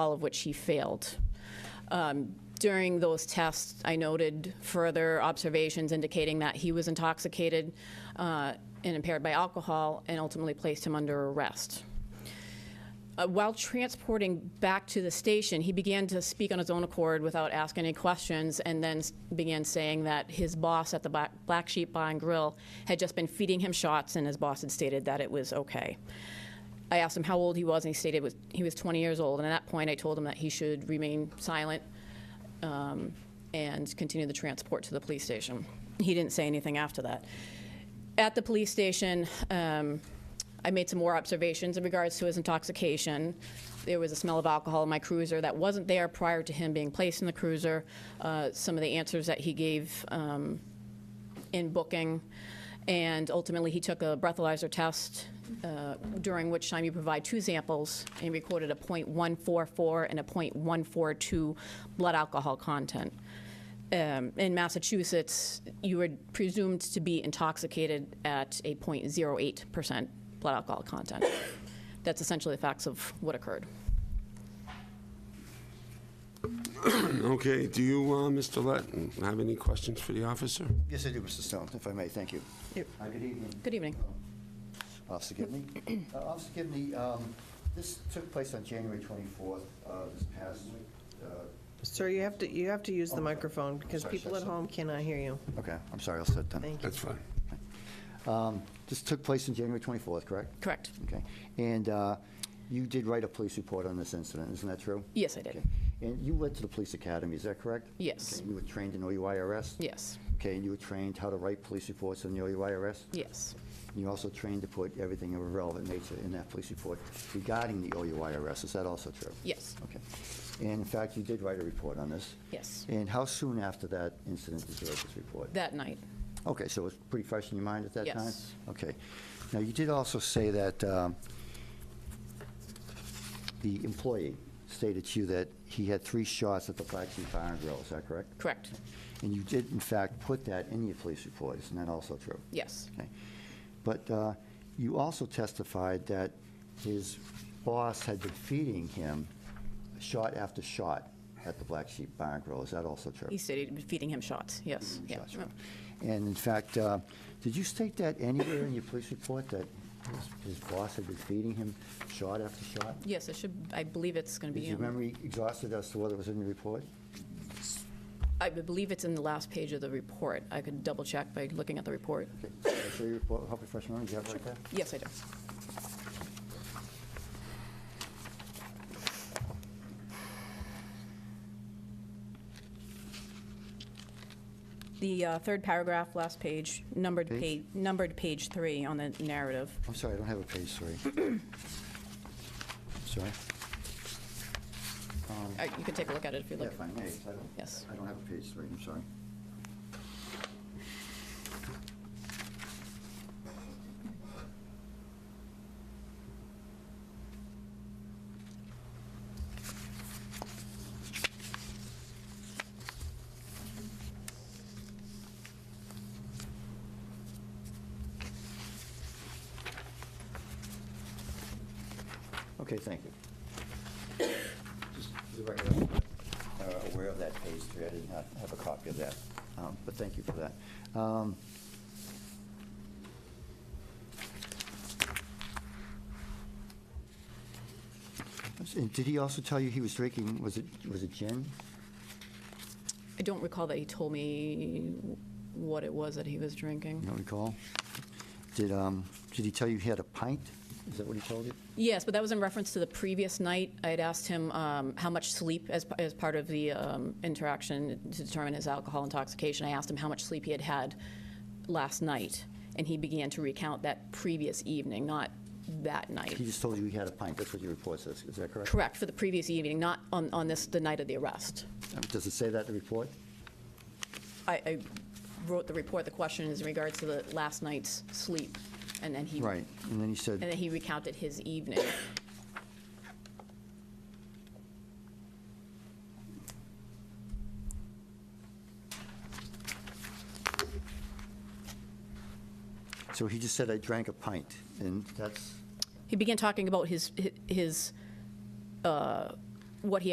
all of which he failed. Um, During those tests, I noted further observations indicating that he was intoxicated uh, and impaired by alcohol, and ultimately placed him under arrest. Uh, While transporting back to the station, he began to speak on his own accord without asking any questions, and then s- began saying that his boss at the Black Black Sheep Bar and Grill had just been feeding him shots, and his boss had stated that it was okay. I asked him how old he was, and he stated was, he was 20 years old. And at that point, I told him that he should remain silent um, and continue the transport to the police station. He didn't say anything after that. At the police station, um, I made some more observations in regards to his intoxication. There was a smell of alcohol in my cruiser that wasn't there prior to him being placed in the cruiser. Uh, some of the answers that he gave um, in booking. And ultimately, he took a breathalyzer test, uh, during which time you provide two samples and recorded a .144 and a .142 blood alcohol content. Um, In Massachusetts, you were presumed to be intoxicated at a .08% blood alcohol content. That's essentially the facts of what occurred. Okay, do you, uh, Mr. Lett, have any questions for the officer? Yes, I do, Mr. Stone, if I may, thank you. Yep. Hi, Good evening, Um, Good evening. Officer Gibney. Uh, Officer Gibney, um, this took place on January 24th, uh, this past, uh, Sir, you have to, you have to use the microphone because Sorry, people sorry, at sorry. home cannot hear you. okay, I'm sorry, I'll sit down. Thank you. That's fine. Um, This took place on January 24th, correct? Correct. Okay, and uh, you did write a police report on this incident, isn't that true? Yes, I Okay. did. And you went to the police academy, is that correct? Yes. Okay, You were trained in OUIRS? Yes, Okay, and you were trained how to write police reports on the OUIRS? yes, You also trained to put everything of a relevant nature in that police report regarding the OUIRS, is that also true? yes, Okay. And in fact, you did write a report on this. yes. And how soon after that incident did you write this report? That night, Okay, so it was pretty fresh in your mind at that time? Yes. Okay. Now, you did also say that um, the employee stated to you that he had three shots at the Black Sheep Bar and Grill, is that correct? correct. And you did, in fact, put that in your police report, isn't that also true? Yes, Okay. But uh, you also testified that his boss had been feeding him shot after shot at the Black Sheep Bar and Grill. Is that also true? he stated he was feeding him shots, yes. yeah. Shots, right. And in fact, uh, did you state that anywhere in your police report, that his- his boss had been feeding him shot after shot? Yes, it should, I believe it's going to Is be, your in- memory exhausted as to whether it was in the report? I believe it's in the last page of the report. I could double check by looking at the report. Okay, can I show you your report, help refresh your memory, do you have it right there? Yes, I do. The uh, third paragraph, last page, numbered Page? page, numbered page three on the narrative. I'm sorry, I don't have a page three. Sorry? Um, Uh, You can take a look at it if you Yeah, like. if I may, I don't- Yes. I don't have a page three, I'm sorry. Okay, thank you. Just for the record, I'm uh, aware of that page three, I did not have a copy of that, um, but thank you for that. Um, and Did he also tell you he was drinking, was it, was it gin? I don't recall that he told me what it was that he was You drinking. don't recall? Did, um, did he tell you he had a pint? Is that what he told you? Yes, but that was in reference to the previous night. I had asked him um, how much sleep, as, as part of the um, interaction to determine his alcohol intoxication, I asked him how much sleep he had had last night, and he began to recount that previous evening, not that He night. just told you he had a pint, that's what your report says, is that correct? Correct, for the previous evening, not on, on this, the night of the arrest. Um, Does it say that in the report? I, I wrote the report, the question is in regards to the last night's sleep, and then he. Right, and then he said. And then he recounted his evening. So he just said, I drank a pint, and that's, He began talking about his, his uh, what he